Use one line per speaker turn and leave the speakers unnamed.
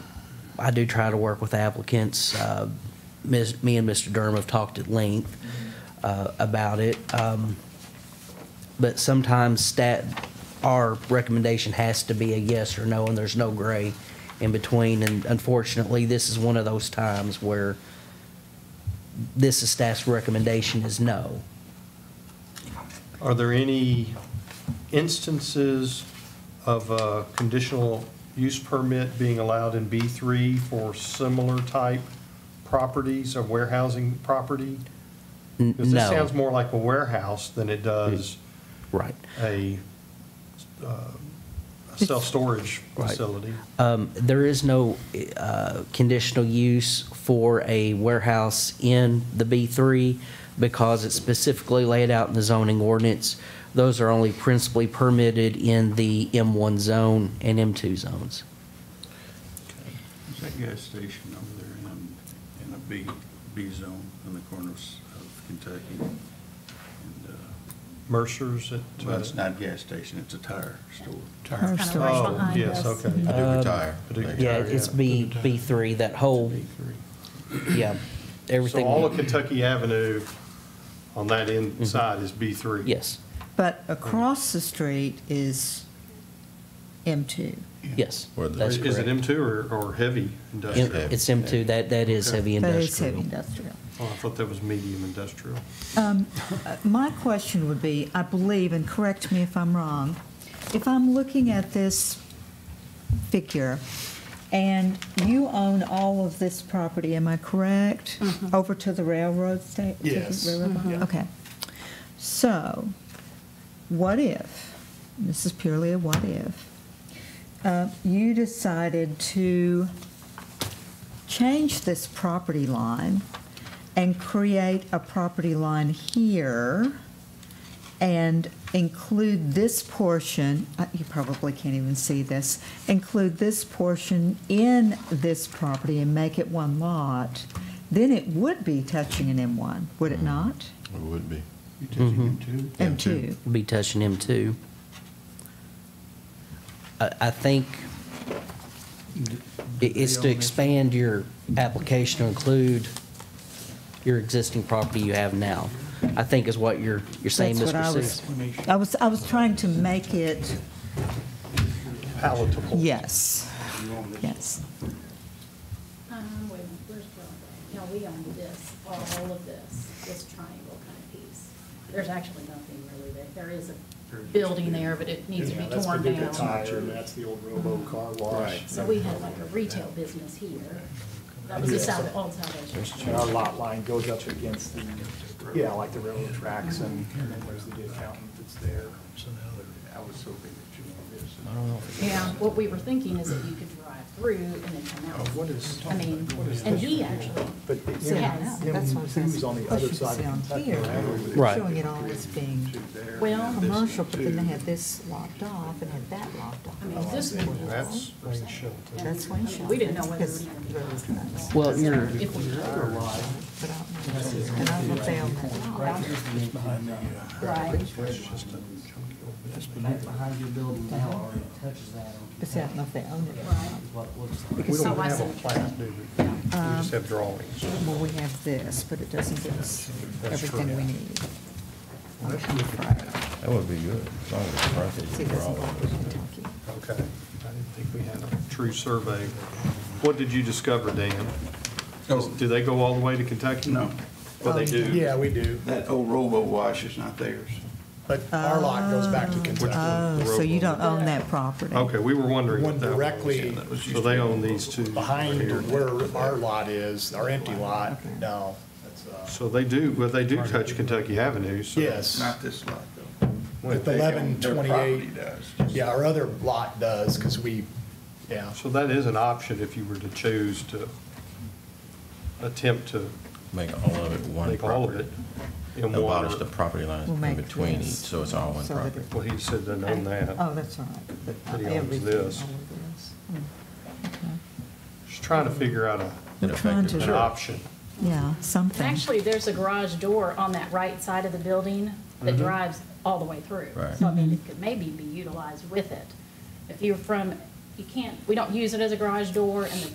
I do try to work with applicants. Uh, Ms- Me and Mr. Durham have talked at length uh, about it. Um, But sometimes stat, our recommendation has to be a yes or no, and there's no gray in between. And unfortunately, this is one of those times where this is staff's recommendation is no.
Are there any instances of a conditional use permit being allowed in B3 for similar type properties or warehousing property?
N-
Because this
No,
sounds more like a warehouse than it does
right.
a uh, a self-storage
Right.
facility.
Um, There is no uh, conditional use for a warehouse in the B3 because it's specifically laid out in the zoning ordinance. Those are only principally permitted in the M1 zone and M2 zones.
There's that gas station over there in, in a B, B zone in the corners of Kentucky. And, uh,
Mercer's at. uh,
Well, it's not a gas station, it's a tire store.
Tire
Kind of
store. Um,
right
Oh,
behind
yes,
us.
okay.
I do retire.
Paducah
Yeah,
Oh,
Tire,
it's
yeah.
B, B3, that whole, yeah,
So
everything. Mm-hmm.
all of Kentucky Avenue on that inside is B3?
Yes,
But across the street is M2.
yes,
Where the-
that's
Is it
correct.
M2 or, or heavy
M-
industrial?
It's M2, that, that is heavy
That is heavy
industrial.
industrial.
Oh, I thought that was medium industrial.
Um, uh, My question would be, I believe, and correct me if I'm wrong, if I'm looking at this figure, and you own all of this property, am I correct? Over to the railroad station?
Yes.
Okay. So, what if, this is purely a what if, uh, you decided to change this property line and create a property line here and include this portion, uh, you probably can't even see this, include this portion in this property and make it one lot, then it would be touching an M1, would it not?
It would be.
You touching
Mm-hmm.
him too?
M2.
Be touching M2. I, I think it- it's to expand your application to include your existing property you have now, I think is what you're, you're saying,
That's what I
Mr.
was,
Seuss.
I was, I was trying to make it,
Palatable.
yes, yes.
Um, wait, a minute, where's Broadway? No, we own this, all all of this, this triangle kind of piece. There's actually nothing really there. There is a building there, but it needs to
Yeah,
be
that's
torn
Paducah
down.
Tire, and that's the old Robo Car Wash.
So we had like a retail business here. That was the side, old Salvation.
And our lot line goes up against the, yeah, like the railroad tracks, and and then there's the good fountain that's there.
So now they're, I was so big that you know this.
I don't know if
Yeah, what we were thinking is that you could drive through and then come out.
Oh, What is-
I mean,
what is
and
this?
he actually,
But
So- Yeah,
M-
that's what I'm
M2 is on the other
Plus you
side
see
of
on
Kentucky
here,
Avenue.
Right.
Showing it all as being
well,
commercial, but then they had this locked off and had that locked off.
I mean, this one.
That's Wayne Shelton.
That's Wayne Shelton.
We didn't know whether
That's
we were gonna-
railroad tracks.
Well, you're,
if we,
But I don't know. And I don't know if they own that lot.
right,
Behind your building now already touches that.
But see, I don't know if they own it. or
right.
not.
We
Because,
don't
So I
have a
said-
plat, do we? We
Um,
just have drawings.
um, well, we have this, but it doesn't give us everything we need.
That would be good, as long as it's private,
See, it
we're
doesn't
all-
belong to Kentucky.
Okay. I didn't think we had a true survey. What did you discover, Dan?
Oh.
Do they go all the way to Kentucky?
No.
Well, they do.
Yeah, we do,
That old Robo Wash is not theirs.
but our lot goes back
Uh,
to Kentucky.
Oh, so you don't own that property?
Okay, we were wondering
One
what that was.
directly
That was
So
used
they
to-
own these two.
behind
here.
where our lot is, our empty lot, no. that's, uh,
So they do, well, they do touch Kentucky Avenue, so.
Yes.
Not this lot though.
With
They own- their
1128.
property does.
Yeah, our other lot does, because we, yeah.
So that is an option if you were to choose to attempt to
Make all of it one
make all of
property.
it in
Abolish the
one.
property lines
We'll
in
make
between each,
this
so it's all one
so that
property.
it-
Well, he said they own that.
Oh, that's all right. But uh,
He owns
everything,
this.
all of this.
Just trying to figure out a,
It
trying
affected-
an
Sure.
option.
Yeah, something.
Actually, there's a garage door on that right side of the building that drives all the way through.
Right.
So I mean, it could maybe be utilized with it. If you're from, you can't, we don't use it as a garage door, and the